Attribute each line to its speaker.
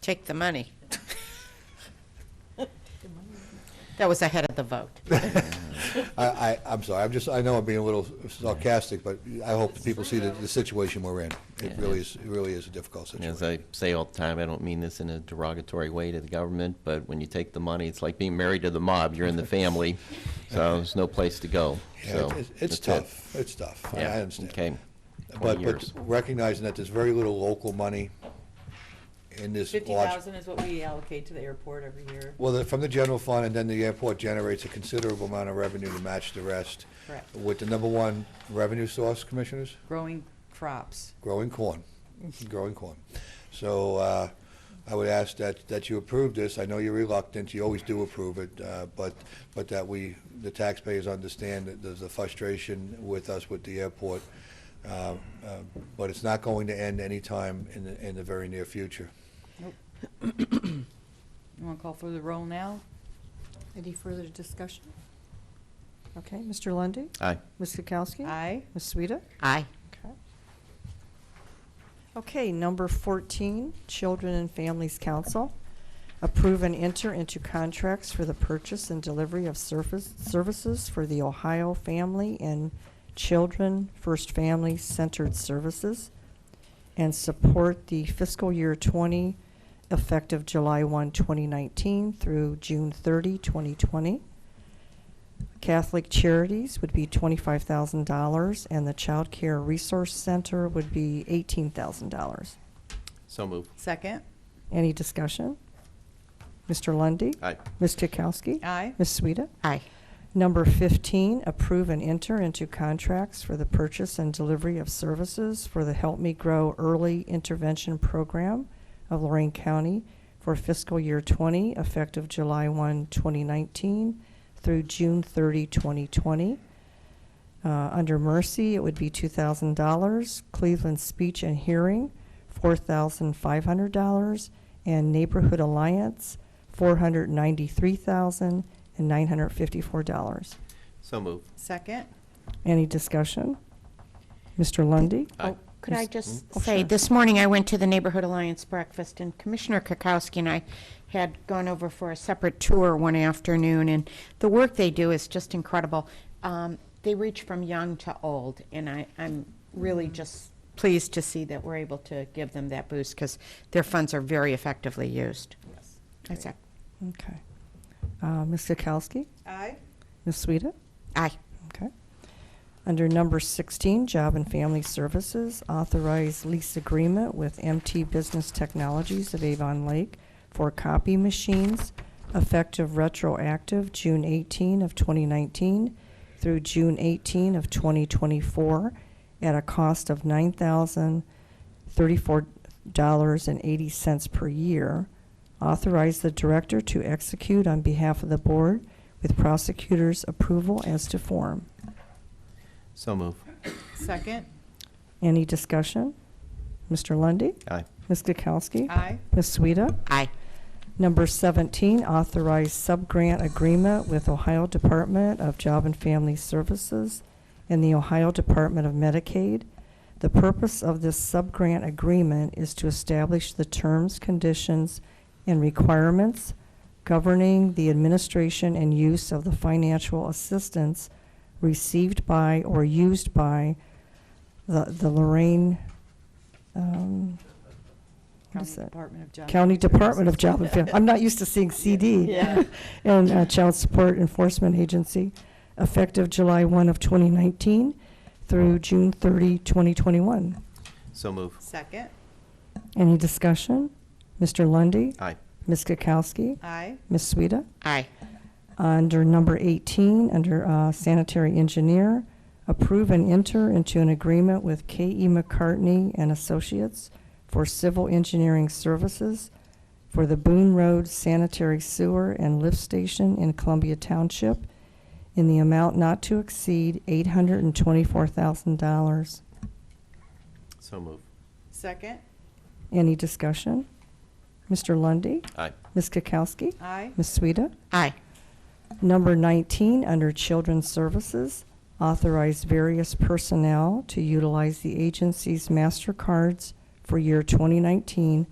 Speaker 1: Take the money. That was ahead of the vote.
Speaker 2: I, I, I'm sorry, I'm just, I know I'm being a little sarcastic, but I hope that people see the, the situation we're in. It
Speaker 3: Yeah.
Speaker 2: really is, it really is a difficult
Speaker 3: And As
Speaker 2: situation.
Speaker 3: I say all the time, I don't mean this in a derogatory way to the government, but when you take the money, it's like being married to the mob. You're in the family, so there's no place to go.
Speaker 2: Yeah,
Speaker 3: So
Speaker 2: it's- it's- It's
Speaker 3: that's it.
Speaker 2: tough, it's tough, I-
Speaker 3: Yeah,
Speaker 2: I understand.
Speaker 3: Okay. 20
Speaker 2: But, but
Speaker 3: years.
Speaker 2: recognizing that there's very little local money in this
Speaker 4: Fifty
Speaker 2: large.
Speaker 4: thousand is what we allocate to the airport every year.
Speaker 2: Well, the- from the general fund, and then the airport generates a considerable amount of revenue to match the rest.
Speaker 4: Correct.
Speaker 2: With the number one revenue source, commissioners?
Speaker 4: Growing crops.
Speaker 2: growing corn, growing corn. So uh, I would ask that, that you approve this. I know you're reluctant, you always do approve it, uh, but, but that we, the taxpayers understand that there's a frustration with us with the airport. Uh, uh, But it's not going to end anytime in the, in the very near future.
Speaker 4: You want to call for the roll now?
Speaker 5: Any further discussion? Okay, Mr. Lundy,
Speaker 3: Aye.
Speaker 5: Ms. Kukowski?
Speaker 4: Aye.
Speaker 5: Ms. Sueda?
Speaker 1: Aye.
Speaker 5: Okay. Okay, number 14, Children and Families Council. Approve and enter into contracts for the purchase and delivery of surface, services for the Ohio Family and Children First Family Centered Services and support the fiscal year 20 effective July 1, 2019 through June 30, 2020. Catholic Charities would be twenty-five thousand dollars, and the Child Care Resource Center would be eighteen thousand dollars.
Speaker 3: So move.
Speaker 4: Second.
Speaker 5: Any discussion? Mr. Lundy,
Speaker 3: Aye.
Speaker 5: Ms. Kukowski?
Speaker 4: Aye.
Speaker 5: Ms. Sueda?
Speaker 1: Aye.
Speaker 5: Number 15, approve and enter into contracts for the purchase and delivery of services for the Help Me Grow Early Intervention Program of Lorraine County for fiscal year 20, effective July 1, 2019 through June 30, 2020. Uh, Under Mercy, it would be $2,000. Cleveland Speech and Hearing, $4,500. And Neighborhood Alliance, $493,954.
Speaker 3: So move.
Speaker 4: Second.
Speaker 5: Any discussion? Mr. Lundy?
Speaker 3: Aye.
Speaker 1: Could I
Speaker 5: Yes.
Speaker 1: just
Speaker 5: Oh,
Speaker 1: say,
Speaker 5: sure.
Speaker 1: this morning I went to the Neighborhood Alliance breakfast, and Commissioner Kokowski and I had gone over for a separate tour one afternoon, and the work they do is just incredible. Um, They reach from young to old, and I, I'm really
Speaker 5: Mm-hmm.
Speaker 1: just pleased to see that we're able to give them that boost, because their funds are very effectively used. That's it.
Speaker 5: Okay. Uh, Ms. Kukowski?
Speaker 4: Aye.
Speaker 5: Ms. Sueda?
Speaker 1: Aye.
Speaker 5: Okay. Under number 16, Job and Family Services, authorize lease agreement with MT Business Technologies of Avon Lake for copy machines effective retroactive June 18 of 2019 through June 18 of 2024 at a cost of $9,034.80 per year. Authorize the director to execute on behalf of the board with prosecutor's approval as to form.
Speaker 3: So move.
Speaker 4: Second.
Speaker 5: Any discussion? Mr. Lundy,
Speaker 3: Aye.
Speaker 5: Ms. Kukowski?
Speaker 4: Aye.
Speaker 5: Ms. Sueda?
Speaker 1: Aye.
Speaker 5: Number 17, authorize subgrant agreement with Ohio Department of Job and Family Services and the Ohio Department of Medicaid. The purpose of this subgrant agreement is to establish the terms, conditions, and requirements governing the administration and use of the financial assistance received by or used by the the Lorraine, um, what
Speaker 4: County
Speaker 5: is it?
Speaker 4: Department of Job.
Speaker 5: County
Speaker 4: and Family
Speaker 5: Department of Job and
Speaker 4: Services.
Speaker 5: Family, I'm not used to seeing CD.
Speaker 4: Yeah.
Speaker 5: And uh, Child Support Enforcement Agency, effective July 1 of 2019 through June 30, 2021.
Speaker 3: So move.
Speaker 4: Second.
Speaker 5: Any discussion? Mr. Lundy,
Speaker 3: Aye.
Speaker 5: Ms. Kukowski?
Speaker 4: Aye.
Speaker 5: Ms. Sueda?
Speaker 1: Aye.
Speaker 5: Under number 18, under uh, sanitary engineer, approve and enter into an agreement with K.E. McCartney and Associates for civil engineering services for the Boone Road Sanitary Sewer and Lift Station in Columbia Township in the amount not to exceed $824,000.
Speaker 3: So move.
Speaker 4: Second.
Speaker 5: Any discussion? Mr. Lundy,
Speaker 3: Aye.
Speaker 5: Ms. Kukowski?
Speaker 4: Aye.
Speaker 5: Ms. Sueda?
Speaker 1: Aye.
Speaker 5: Number 19, under Children's Services, authorize various personnel to utilize the agency's MasterCards for year 2019